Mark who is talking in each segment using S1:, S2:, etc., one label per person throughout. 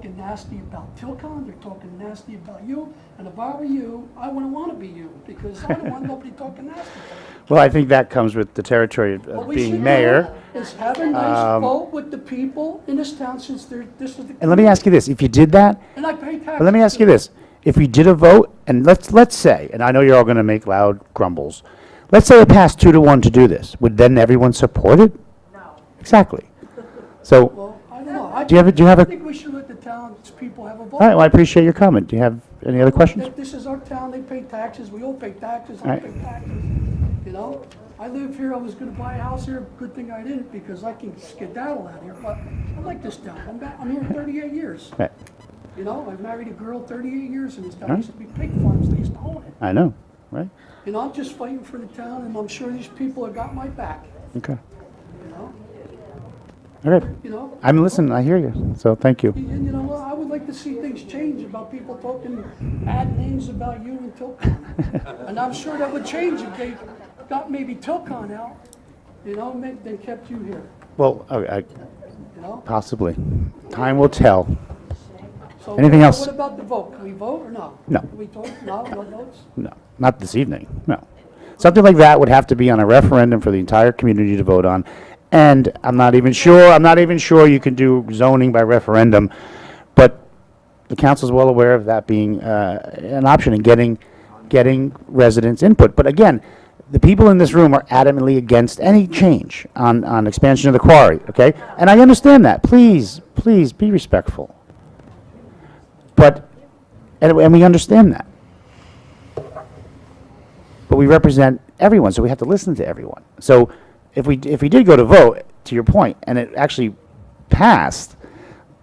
S1: talking nasty about Tilcon, they're talking nasty about you, and if I were you, I wouldn't want to be you, because I don't want nobody talking nasty.
S2: Well, I think that comes with the territory of-
S1: What
S2: of
S1: we
S2: being
S1: should
S2: mayor. um,
S1: do Is have a nice vote with the people in this town since they're, this is the.
S2: And let me ask you this, if you did that,
S1: And I pay taxes.
S2: but let me ask you this, if we did a vote, and let's, let's say, and I know you're all gonna make loud grumbles, let's say it passed two to one to do this, would then everyone support it?
S3: No.
S2: Exactly. So, all
S1: Well, I don't know. I
S2: Do you have a- do you have a-
S1: I think we should let the townspeople have a vote.
S2: right, well, I appreciate your comment. Do you have any other questions?
S1: That This is our town, they pay taxes, we all pay taxes, I
S2: Right.
S1: pay taxes, you know? I live here, I was gonna buy a house here, good thing I didn't, because I can skedaddle out here, but I like this town, I'm back, I'm here thirty-eight years.
S2: Right,
S1: You know, I married a girl thirty-eight years in this town,
S2: Right.
S1: It used to be pig farms, they used to own it.
S2: I know, right?
S1: You know, I'm just fighting for the town, and I'm sure these people have got my back,
S2: Okay,
S1: you know?
S2: all right.
S1: You know?
S2: I'm listening, I hear you, so thank you.
S1: And you know what, I would like to see things change about people talking bad names about you and Tilcon. And I'm sure that would change if they got maybe Tilcon out, you know, ma- they kept you here,
S2: Well, I- I-
S1: you know?
S2: possibly. Time will tell.
S1: So
S2: Anything else?
S1: What about the vote? Can we vote or no?
S2: No.
S1: Can we talk, no, no votes?
S2: No, not this evening, no. Something like that would have to be on a referendum for the entire community to vote on. And I'm not even sure, I'm not even sure you can do zoning by referendum, but the council's well aware of that being uh, an option and getting, getting residents' input. But again, the people in this room are adamantly against any change on, on expansion of the quarry, okay? And I understand that. Please, please be respectful. But, and and we understand that but we represent everyone, so we have to listen to everyone. So if we, if we did go to vote, to your point, and it actually passed,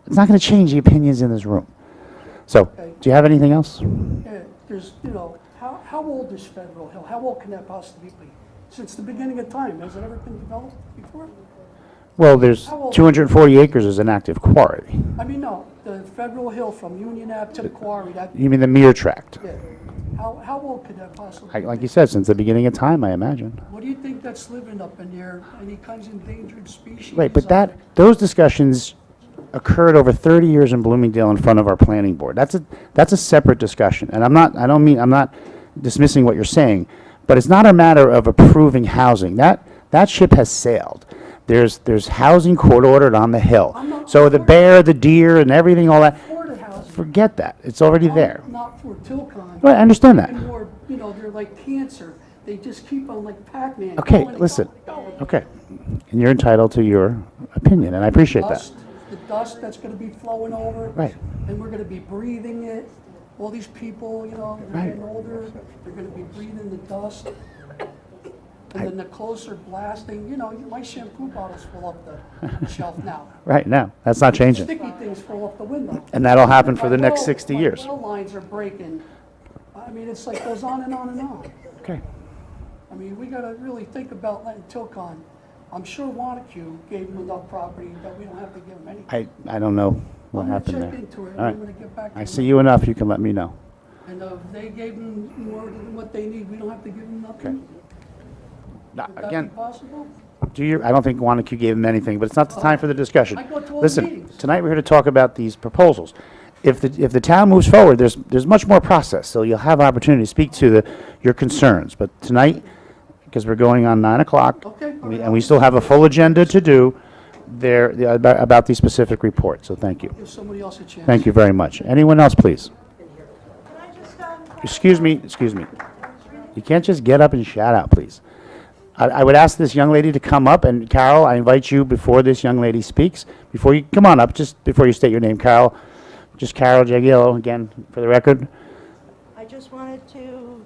S2: it's not going to change the opinions in this room. So, do you have anything else?
S1: Yeah, There's, you know, how, how old is Federal Hill? How old can that possibly be? Since the beginning of time, has it ever been developed before?
S2: Well, there's
S1: How old-
S2: 240 acres is an active quarry.
S1: I mean, no, the Federal Hill from Union Ave to the quarry, that,
S2: You mean the mere tract?
S1: yeah. How, how old could that possibly
S2: Like-
S1: be?
S2: Like you said, since the beginning of time, I imagine.
S1: What do you think that's living up in there? Any kinds of endangered species?
S2: Right, but
S1: up
S2: that,
S1: there?
S2: those discussions occurred over 30 years in Bloomingdale in front of our planning board. That's a, that's a separate discussion, and I'm not, I don't mean, I'm not dismissing what you're saying, but it's not a matter of approving housing. That, that ship has sailed. There's, there's housing court ordered on the
S1: I'm
S2: hill.
S1: not
S2: So the
S1: for it.
S2: bear, the deer, and everything, all that,
S1: Florida housing.
S2: forget that, it's already there.
S1: Not for Tilcon.
S2: Right, I understand that.
S1: And more, you know, they're like cancer. They just keep on like Pac-Man.
S2: Okay,
S1: going and
S2: listen,
S1: going and going.
S2: okay, and you're entitled to your opinion, and I appreciate that.
S1: Dust, the dust that's gonna be flowing over.
S2: Right.
S1: And we're gonna be breathing it. All these people, you know, they're
S2: Right.
S1: getting older, they're gonna be breathing the dust. And then the closer blasting, you know, my shampoo bottles fall off the shelf now.
S2: Right, now, that's not changing.
S1: Sticky things fall off the window.
S2: And that'll happen for the next
S1: My
S2: 60
S1: well-
S2: years.
S1: My well lines are breaking. I mean, it's like goes on and on and on.
S2: Okay.
S1: I mean, we gotta really think about letting Tilcon, I'm sure Wanacue gave them enough property that we don't have to give them any.
S2: I, I don't know what
S1: I'm
S2: happened
S1: gonna
S2: there.
S1: check into it, and
S2: All
S1: I'm gonna
S2: right.
S1: get back to
S2: I
S1: you.
S2: see you enough, you can let me know.
S1: And uh, if they gave them more than what they need, we don't have to give them nothing? Would
S2: No,
S1: that be
S2: Again,
S1: possible?
S2: do your, I don't think Wanacue gave them anything, but it's not the time for the discussion.
S1: I go to all the
S2: Listen,
S1: meetings.
S2: tonight we're here to talk about these proposals. If the, if the town moves forward, there's, there's much more process, so you'll have opportunity to speak to the, your concerns. But tonight, because we're going on nine o'clock,
S1: Okay.
S2: we- and we still have a full agenda to do there, the- about, about these specific reports, so thank you.
S1: Give somebody else a chance.
S2: Thank you very much. Anyone else, please?
S3: Can I just, um,
S2: Excuse me, excuse me. You can't just get up and shout out, please. I, I would ask this young lady to come up, and Carol, I invite you before this young lady speaks, before you, come on up, just before you state your name, Carol. Just Carol Jagiello, again, for the record.
S3: I just wanted to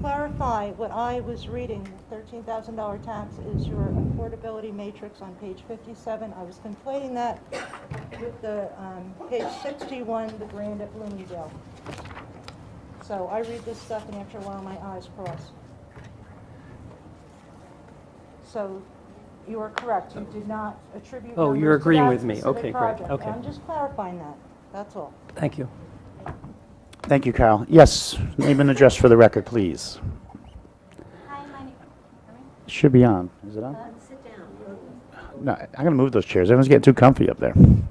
S3: clarify what I was reading. $13,000 tax is your affordability matrix on page 57. I was conflating that with the, um, page 61, the grant at Bloomingdale. So I read this stuff and after a while my eyes cross. So you are correct. You did not attribute
S4: Oh, you're
S3: numbers to
S4: agreeing
S3: that
S4: with me.
S3: specific
S4: Okay, great.
S3: project.
S4: Okay.
S3: I'm just clarifying that. That's all.
S4: Thank you.
S2: Thank you, Carol. Yes, name and address for the record, please.
S5: Hi, my name,
S2: Should be on. Is it on?
S5: uh, sit down.
S2: No, I'm gonna move those chairs. Everyone's getting too comfy up there.
S5: um,